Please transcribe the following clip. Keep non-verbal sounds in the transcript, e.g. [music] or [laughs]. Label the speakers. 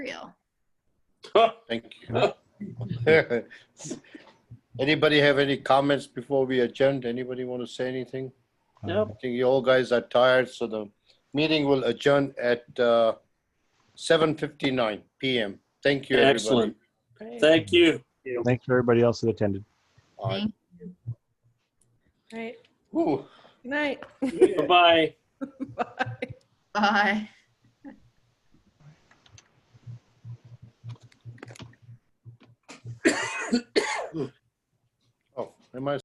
Speaker 1: real.
Speaker 2: Thank you. [laughs] Anybody have any comments before we adjourn? Anybody want to say anything?
Speaker 3: Nope.
Speaker 2: I think you all guys are tired, so the meeting will adjourn at uh, 7:59 PM. Thank you, everybody.
Speaker 4: Excellent. Thank you.
Speaker 3: Thanks for everybody else that attended.
Speaker 2: All right.
Speaker 1: Thank-
Speaker 5: Right.
Speaker 2: Ooh,
Speaker 5: Good night. [laughs]
Speaker 4: Bye-bye.
Speaker 5: Bye.
Speaker 1: Bye.
Speaker 2: Oh, am I